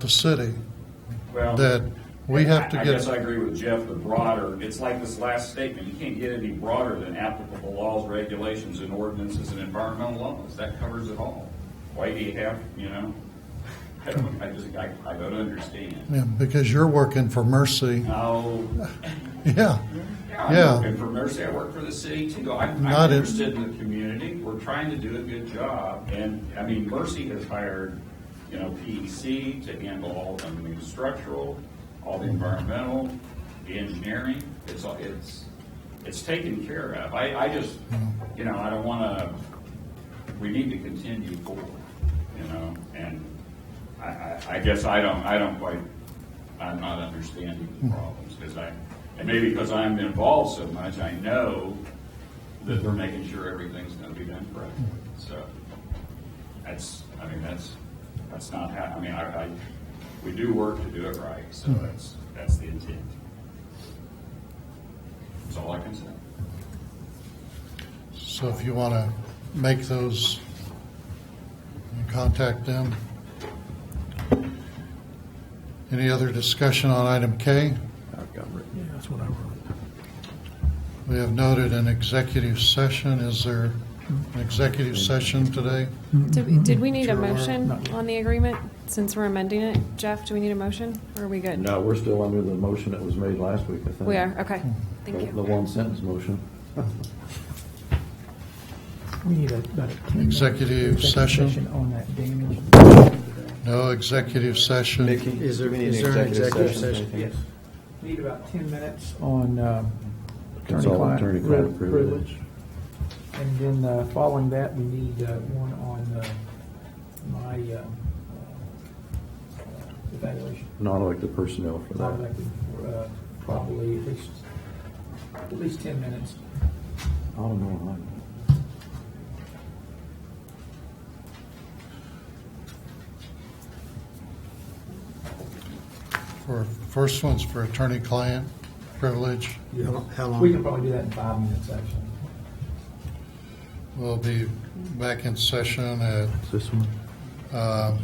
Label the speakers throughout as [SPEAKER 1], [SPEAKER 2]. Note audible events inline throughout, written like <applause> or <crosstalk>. [SPEAKER 1] the city
[SPEAKER 2] Well,
[SPEAKER 1] that we have to
[SPEAKER 2] I- I
[SPEAKER 1] get-
[SPEAKER 2] guess I agree with Jeff, the broader, it's like this last statement, you can't get any broader than applicable laws, regulations, and ordinances and environmental laws. That covers it all. Why do you have, you know, <laughs> I don't, I just, I, I don't understand.
[SPEAKER 1] yeah, because you're working for Mercy. <laughs>
[SPEAKER 2] Oh,
[SPEAKER 1] Yeah,
[SPEAKER 2] yeah, I'm
[SPEAKER 1] Yeah.
[SPEAKER 2] working for Mercy, I work for the city too. I'm,
[SPEAKER 1] Not
[SPEAKER 2] I'm
[SPEAKER 1] in-
[SPEAKER 2] interested in the community, we're trying to do a good job. And, I mean, Mercy has hired, you know, PEC to handle all of them, the structural, all the environmental, the engineering, it's, all it's, it's taken care of. I, I just, you know, I don't wanna, we need to continue forward, you know? And I, I, I guess I don't, I don't quite, I'm not understanding
[SPEAKER 1] Hmm.
[SPEAKER 2] the problems, because I, and maybe because I'm involved so much, I know that we're making sure everything's gonna be done correctly, so. That's, I mean, that's, that's not how, I mean, I, I, we do work to do it right, so that's, that's the intent. That's all I can say.
[SPEAKER 1] so if you want to make those, contact them. Any other discussion on item K?
[SPEAKER 3] I've got written.
[SPEAKER 4] Yeah, that's what I wrote.
[SPEAKER 1] We have noted an executive session. Is there an executive session today?
[SPEAKER 5] Did, we- did we need a
[SPEAKER 6] Mm-hmm.
[SPEAKER 1] Sure.
[SPEAKER 5] motion on the agreement, since we're amending it? Jeff, do we need a motion, or are we good?
[SPEAKER 3] No, uh, we're still under the motion that was made last week, I think.
[SPEAKER 5] We are, okay, thank
[SPEAKER 6] Mm-hmm.
[SPEAKER 3] The- The
[SPEAKER 5] you.
[SPEAKER 3] one sentence motion.
[SPEAKER 4] We need a- about a 10 minute
[SPEAKER 1] Executive session.
[SPEAKER 4] On that damage.
[SPEAKER 1] No executive session.
[SPEAKER 6] Is there, is there an executive session?
[SPEAKER 4] Yes. Need about 10 minutes on um,
[SPEAKER 3] Consult
[SPEAKER 4] attorney-client
[SPEAKER 3] attorney-client
[SPEAKER 4] priv-
[SPEAKER 3] privilege.
[SPEAKER 4] privilege. And then uh, following that, we need uh, one on uh, my um, uh, evaluation.
[SPEAKER 3] Not like the personnel for
[SPEAKER 4] I'd
[SPEAKER 3] that.
[SPEAKER 4] like to, uh, Probably at least, at least 10 minutes.
[SPEAKER 3] I don't know.
[SPEAKER 1] For, first one's for attorney-client privilege.
[SPEAKER 6] How how
[SPEAKER 4] We can
[SPEAKER 6] long?
[SPEAKER 4] probably do that in five minutes, actually.
[SPEAKER 1] We'll be back in session at
[SPEAKER 3] Is this one?
[SPEAKER 4] Well,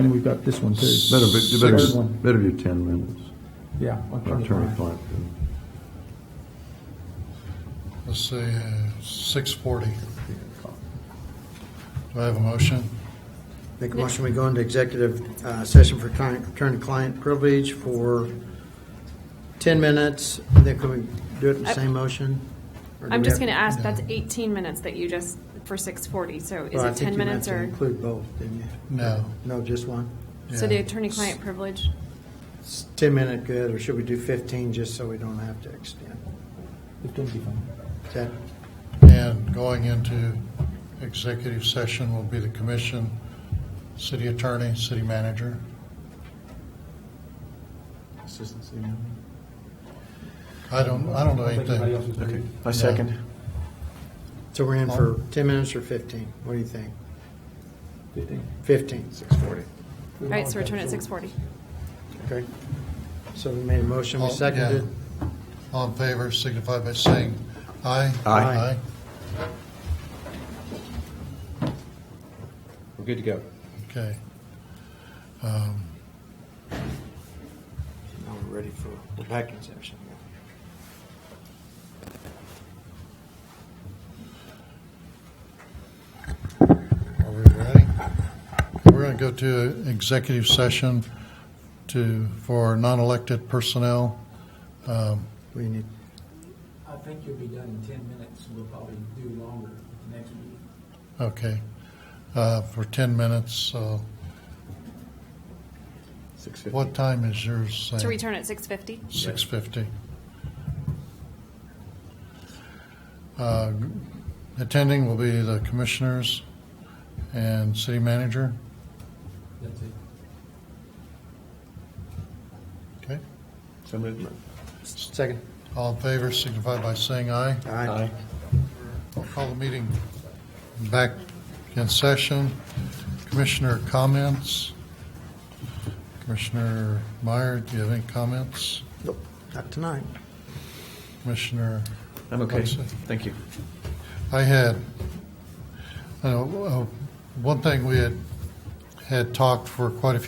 [SPEAKER 4] and we've got this one too.
[SPEAKER 3] Better, be- better,
[SPEAKER 4] Third one.
[SPEAKER 3] better be ten minutes.
[SPEAKER 4] Yeah.
[SPEAKER 3] Attorney-client. privilege.
[SPEAKER 1] Let's see, six forty. Do I have a motion?
[SPEAKER 6] Make a motion, we go into executive uh, session for attorney- attorney-client privilege for 10 minutes, and then can we do it in the same motion? Or do
[SPEAKER 5] I'm
[SPEAKER 6] we
[SPEAKER 5] just
[SPEAKER 6] have-
[SPEAKER 5] gonna ask, that's eighteen minutes that you just, for six forty, so is
[SPEAKER 6] Well, I
[SPEAKER 5] it
[SPEAKER 6] think
[SPEAKER 5] ten
[SPEAKER 6] you meant
[SPEAKER 5] minutes
[SPEAKER 6] to
[SPEAKER 5] or?
[SPEAKER 6] Include both, didn't you?
[SPEAKER 1] No.
[SPEAKER 6] No, just one?
[SPEAKER 5] So the
[SPEAKER 1] Yeah.
[SPEAKER 5] attorney-client privilege?
[SPEAKER 6] It's 10-minute good, or should we do 15, just so we don't have to extend?
[SPEAKER 4] It could be fine.
[SPEAKER 6] Is that,
[SPEAKER 1] And going into executive session will be the commission, city attorney, city manager. I don't, Um, I don't know
[SPEAKER 4] think anybody else
[SPEAKER 1] anything.
[SPEAKER 4] is doing
[SPEAKER 1] I second.
[SPEAKER 6] so we're in for 10 minutes or 15? What do you think?
[SPEAKER 4] fifteen.
[SPEAKER 6] 15? 6:40.
[SPEAKER 5] All right, so return at six forty.
[SPEAKER 6] Okay. So we made a motion, we
[SPEAKER 1] Oh, yeah.
[SPEAKER 6] seconded.
[SPEAKER 1] All in favor, signify by saying aye.
[SPEAKER 6] Aye.
[SPEAKER 3] We're good to go.
[SPEAKER 1] Okay. Um,
[SPEAKER 6] Now we're ready for, we're back in session.
[SPEAKER 1] Are we ready? We're going to go to executive session to, for non-elected personnel. Um,
[SPEAKER 6] We need,
[SPEAKER 4] I think you'll be done in ten minutes, we'll probably do longer next meeting.
[SPEAKER 1] Okay, uh, for 10 minutes, so. What time is yours? Sam?
[SPEAKER 5] So return at six fifty?
[SPEAKER 1] 6:50. Uh, Attending will be the commissioners and city manager.
[SPEAKER 4] That's it.
[SPEAKER 1] Okay,
[SPEAKER 3] So moved.
[SPEAKER 6] second.
[SPEAKER 1] all in favor signify by saying aye.
[SPEAKER 6] Aye.
[SPEAKER 1] I'll call the meeting back in session. Commissioner comments? Commissioner Meyer, do you have any comments?
[SPEAKER 6] Nope, Not tonight.
[SPEAKER 1] Commissioner?
[SPEAKER 7] I'm okay.
[SPEAKER 1] Lexi?
[SPEAKER 7] Thank you.
[SPEAKER 1] I had, uh, uh, one thing we had had talked for quite a few